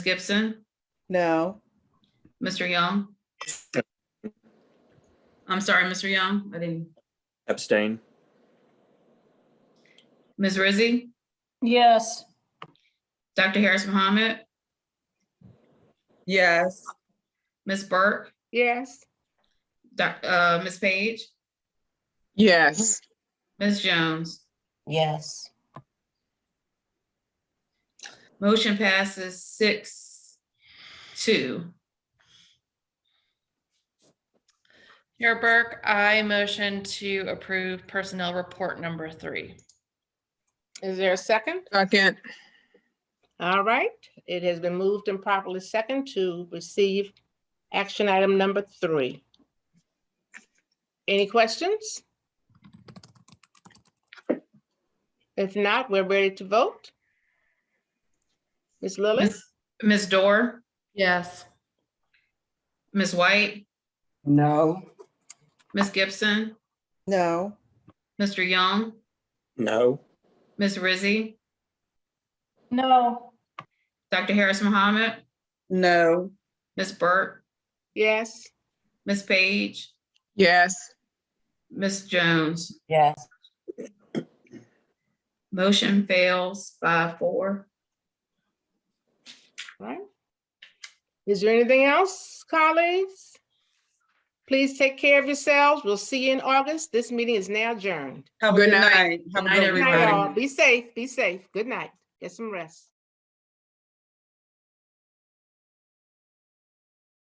Gibson, No, Mr. Young. I'm sorry, Mr. Young, I didn't, Abstain. Ms. Rizzi, Yes, Dr. Harris Mohammed, Yes. Ms. Burke, Yes, Doc- uh, Ms. Page, Yes. Ms. Jones. yes, Motion passes six, two. Chair Burke, I motion to approve personnel report number three. is there a second? Second. All right, it has been moved and properly second to receive action item number three. Any questions? If not, we're ready to vote. Ms. Lillis, Ms. Ms. Dorr, Yes. Ms. White, No, Ms. Gibson, no, Mr. Young, No. Ms. Rizzi, no, Dr. Harris Mohammed, No. Ms. Burke, yes, Ms. Page, Yes. Ms. Jones. yes, Motion fails by four. right? Is there anything else, colleagues? Please take care of yourselves. We'll see you in August. This meeting is now adjourned. Good night. Good night, everybody. all. Be safe, be safe. Good night. Get some rest.